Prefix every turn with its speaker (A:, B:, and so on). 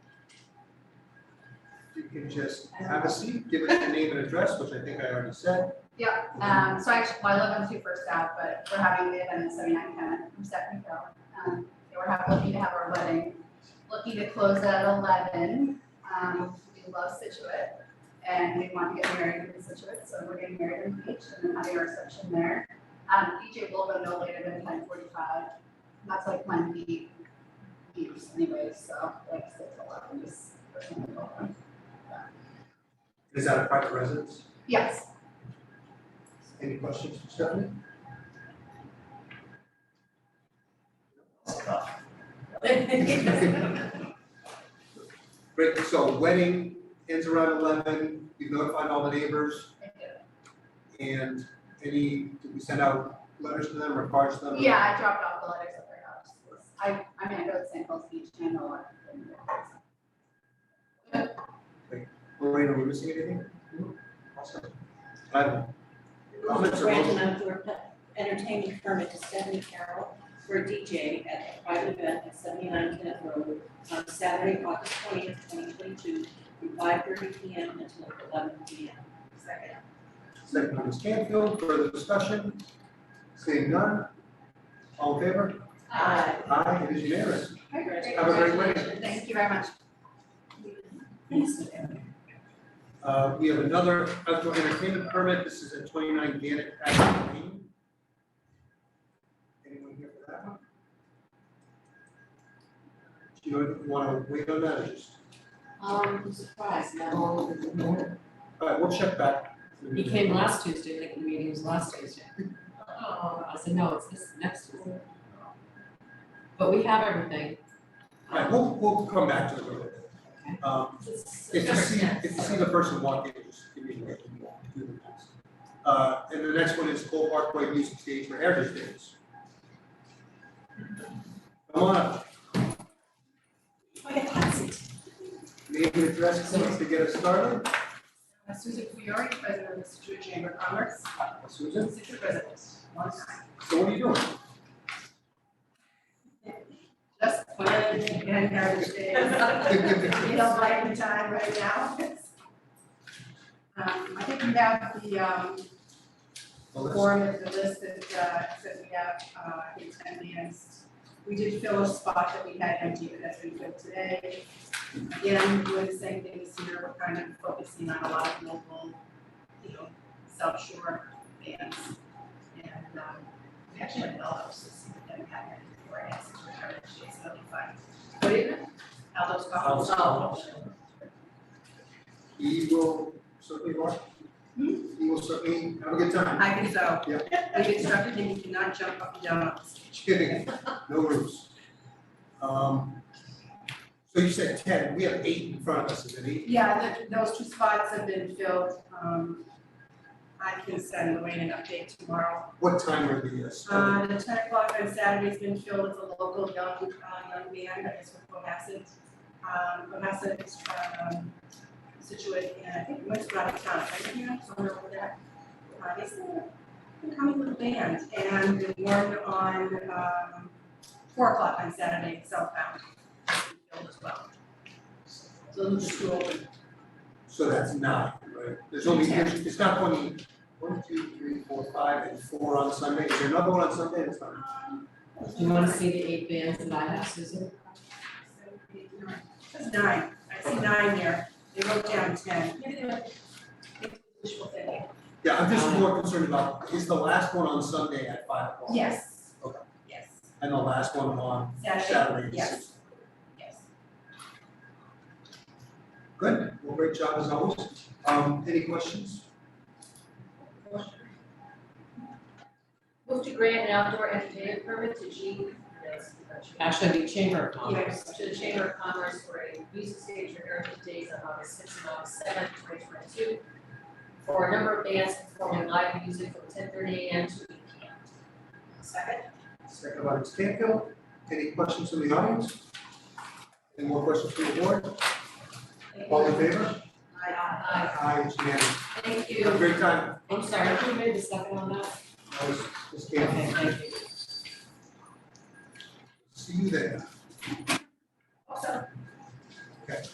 A: you can just have a seat, give us your name and address, which I think I already said.
B: Yep, um, so I actually, well, I live on two first Ave, but we're having the event at seventy-nine Kevin, from Stephanie Carroll. Um, so we're hap- looking to have our wedding, looking to close at eleven, um, we love Situate. And we want to get married in Situate, so we're getting married in the beach and then having our reception there. Um, DJ will go no later than ten forty-five, that's like when he leaves anyways, so like six eleven is.
A: Is that a private residence?
B: Yes,
A: Any questions for Stephanie? Great, so wedding ends around eleven, you've notified all the neighbors
B: I do.
A: and any, did we send out letters to them or cards to them?
B: Yeah, I dropped off the letters at their house. I, I mean, I go to St. Paul's Beach and I lot.
A: Lorraine, are we missing anything? Awesome. I don't know.
C: Grant
A: Comments or
C: an
A: motion?
C: outdoor entertainment permit to Stephanie Carroll for a DJ at a private event at seventy-nine Kenneth Road on Saturday, August twentieth, twenty twenty-two, from five thirty P M until eleven P M. Second.
A: Second by Ms. Canfield, further discussion? Seeing none? All in favor?
B: Uh,
C: Aye.
A: Aye, it is unanimous.
B: Have
A: Have a great wedding.
B: Thank you very much.
A: Uh, we have another outdoor entertainment permit, this is at twenty-nine Gannett Avenue Lane. Anyone here for that one? Do you wanna wait on that or just,
C: Um, I'm surprised, no.
A: all right, we'll check back.
D: He came last Tuesday, like the meeting was last Tuesday. I said, no, it's this next Tuesday. But we have everything.
A: All right, we'll, we'll come back to it a little bit.
D: Okay.
A: Um, if you see, if you see the person walk in, just give me a minute. and walk through the list. Uh, and the next one is Cole Parkway Music Stage for Heritage Days. Come on up,
C: Wait, that's it.
A: name and address, please, to get us started.
B: Susan Fiore, President of the Situate Chamber of Commerce,
A: Susan,
B: Situate residents.
A: so what are you doing?
B: Just fun and heritage days. We don't like the time right now. Um, I think we have the, um,
A: Well, that's-
B: form of the list that, uh, that we have, uh, I think ten bands. We did fill a spot that we had empty, but that's been filled today. Again, we're doing the same thing this year, we're kind of focusing on a lot of local, you know, South Shore bands. And, um, we actually had Aldo's this year, that we had here before, and it's just retired, she's really fun. What is it? Aldo's Coffee.
A: Aldo's Coffee. He will certainly walk. He will certainly have a good time.
E: I think so.
A: Yeah.
E: We've instructed him, he cannot jump up and down on the stage.
A: Just Kidding, no rules. Um, so you said ten, we have eight in front of us, is it eight?
E: Yeah, th- those two spots have been filled. Um, I can send Lorraine an update tomorrow.
A: What time are the, uh, starting?
E: Uh, the ten o'clock on Saturday's been filled with a local young, uh, young man, that is from Cohasset. Um, Cohasset is from, um, Situate, and I think most out of town, I think, you know, somewhere over there. Uh, he's a, a coming little band, and the one on, um, four o'clock on Saturday, southbound, has been filled as well. So those are two open.
A: So that's nine, right? There's only, there's- it's not twenty, one, two, three, four, five, and four on Sunday. Is there another one on Sunday? That's not.
C: Um,
D: Do you wanna see the eight bands that I have, Susan?
E: That's nine, I see nine there, they wrote down ten. Maybe they were- it's wishful thinking.
A: Yeah, I'm
E: Uh,
A: just more concerned about, is the last one on Sunday at five o'clock?
E: Yes.
A: Okay.
E: Yes,
A: And the last one on
E: Saturday,
A: Saturday at
E: yes.
A: six.
E: yes.
A: Good, well, great job as always. Um, any questions?
F: Move to grant an outdoor entertainment permit to Jean, yes,
D: Actually, the Chamber of Commerce.
F: yes, to the Chamber of Commerce for a music stage for Heritage Days on August sixth and August seventh, twenty twenty-two, for a number of bands performing live music from ten thirty AM to eight PM.
E: Second?
A: Second by Ms. Canfield. Any questions from the audience? Any more questions from the board? All in favor?
E: Aye.
F: Aye.
A: Aye, it's unanimous.
F: Uh, Thank
A: Have a
F: you.
A: great time.
D: I'm sorry, who made the second on that?
A: That was Ms. Canfield.
D: Okay, thank you.
A: See you there.